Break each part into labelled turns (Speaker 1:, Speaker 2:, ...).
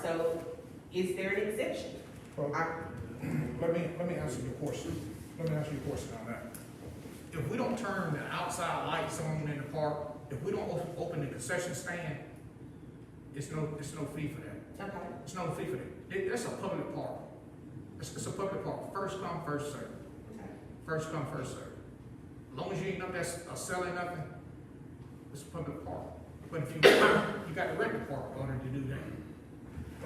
Speaker 1: So is there an exemption?
Speaker 2: Well,
Speaker 1: I-
Speaker 2: Let me, let me answer your question. Let me answer your question on that. If we don't turn the outside lights on in the park, if we don't op- open the concession stand, it's no, it's no fee for that.
Speaker 1: Okay,
Speaker 2: It's no fee for that. It- That's a public park. It's, it's a public park. First come, first served.
Speaker 1: okay.
Speaker 2: First come, first served. As long as you ain't up there s- uh, selling nothing, it's a public park. But if you, you got to rent the park in order to do that.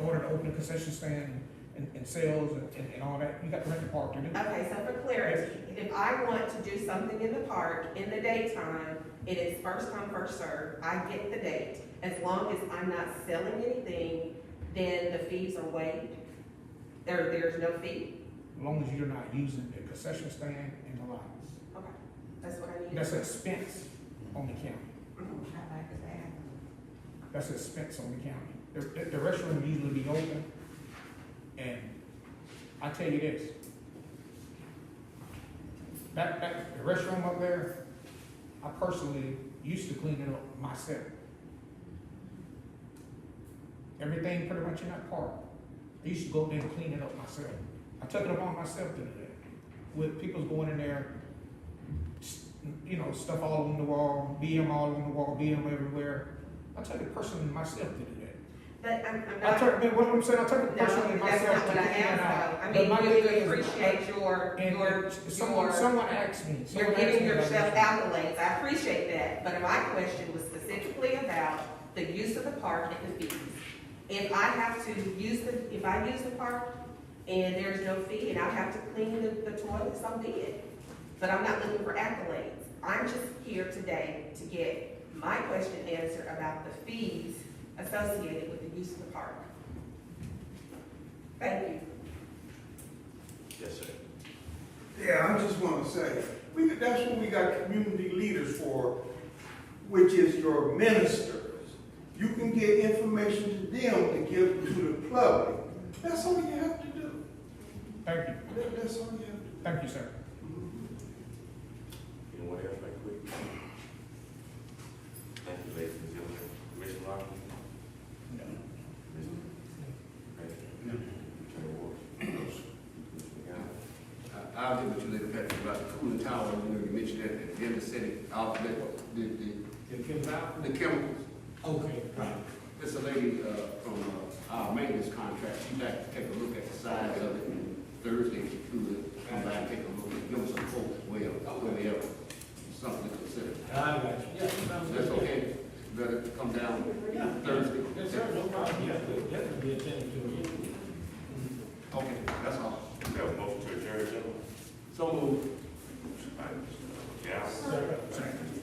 Speaker 2: In order to open a concession stand and, and sales and, and- and all that, you got to rent the park to do that.
Speaker 1: Okay, so for clarity, if I want to do something in the park in the daytime, it is first come, first served, I get the date. As long as I'm not selling anything, then the fees are waived. There, there's no fee.
Speaker 2: As long as you're not using the concession stand and the lights.
Speaker 1: Okay, that's what I need.
Speaker 2: That's an expense on the county.
Speaker 1: Mhm.
Speaker 2: That's an expense on the county. The, the- the restroom usually be open. And I tell you this. That, that, the restroom up there, I personally used to clean it up myself. Everything pretty much in that park, I used to go up there and clean it up myself. I took it upon myself to do that. With people going in there, s- you know, stuff all on the wall, BM all on the wall, BM everywhere. I took it personally myself to do that.
Speaker 1: But I'm, I'm
Speaker 2: I
Speaker 1: not.
Speaker 2: took, man, what I'm saying, I took
Speaker 1: No,
Speaker 2: it
Speaker 1: that's
Speaker 2: personally
Speaker 1: not
Speaker 2: myself to
Speaker 1: what
Speaker 2: do
Speaker 1: I
Speaker 2: that.
Speaker 1: asked
Speaker 2: But
Speaker 1: though.
Speaker 2: my
Speaker 1: I mean,
Speaker 2: thing
Speaker 1: you
Speaker 2: is-
Speaker 1: appreciate your,
Speaker 2: And
Speaker 1: your,
Speaker 2: someone,
Speaker 1: your,
Speaker 2: someone asked me. someone
Speaker 1: you're
Speaker 2: asked
Speaker 1: giving
Speaker 2: me about
Speaker 1: yourself
Speaker 2: this.
Speaker 1: accolades. I appreciate that. But my question was specifically about the use of the park and the fees. If I have to use the, if I use the park and there's no fee and I have to clean the, the toilets, so be it. But I'm not looking for accolades. I'm just here today to get my question answered about the fees associated with the use of the park. Thank you.
Speaker 3: Yes, sir.
Speaker 4: Yeah, I just want to say, we, that's what we got community leaders for, which is your ministers. You can get information to them to give to the public. That's all you have to do.
Speaker 2: Thank you,
Speaker 4: That- That's all you have to do.
Speaker 2: thank you, sir.
Speaker 3: Anyone else right quick? Thank you, ladies and gentlemen. Commissioner Lockley?
Speaker 2: No.
Speaker 3: Commissioner? No. Commissioner Ward? Commissioner Gallo?
Speaker 5: I- I'll get with you later, Patrick, about the cooling tower, you know, you mentioned that, at the end of the city, out, the, the,
Speaker 6: It comes out?
Speaker 5: the chemicals.
Speaker 6: Okay, right.
Speaker 5: There's a lady, uh, from, uh, our maintenance contract, she'd like to take a look at the size of it Thursday, if she could, come back, and take a look, and give us a quote as well, so we have something to consider.
Speaker 6: I got you. Yeah, sounds good.
Speaker 5: That's okay, better come down
Speaker 6: Yeah.
Speaker 5: Thursday.
Speaker 6: Yes, sir, no problem, yeah, we'll definitely attend to it.
Speaker 5: Okay, that's all.
Speaker 3: We have a motion to adjourn, gentlemen.
Speaker 5: So moved.
Speaker 3: Gallo?
Speaker 6: Sir.
Speaker 3: Second.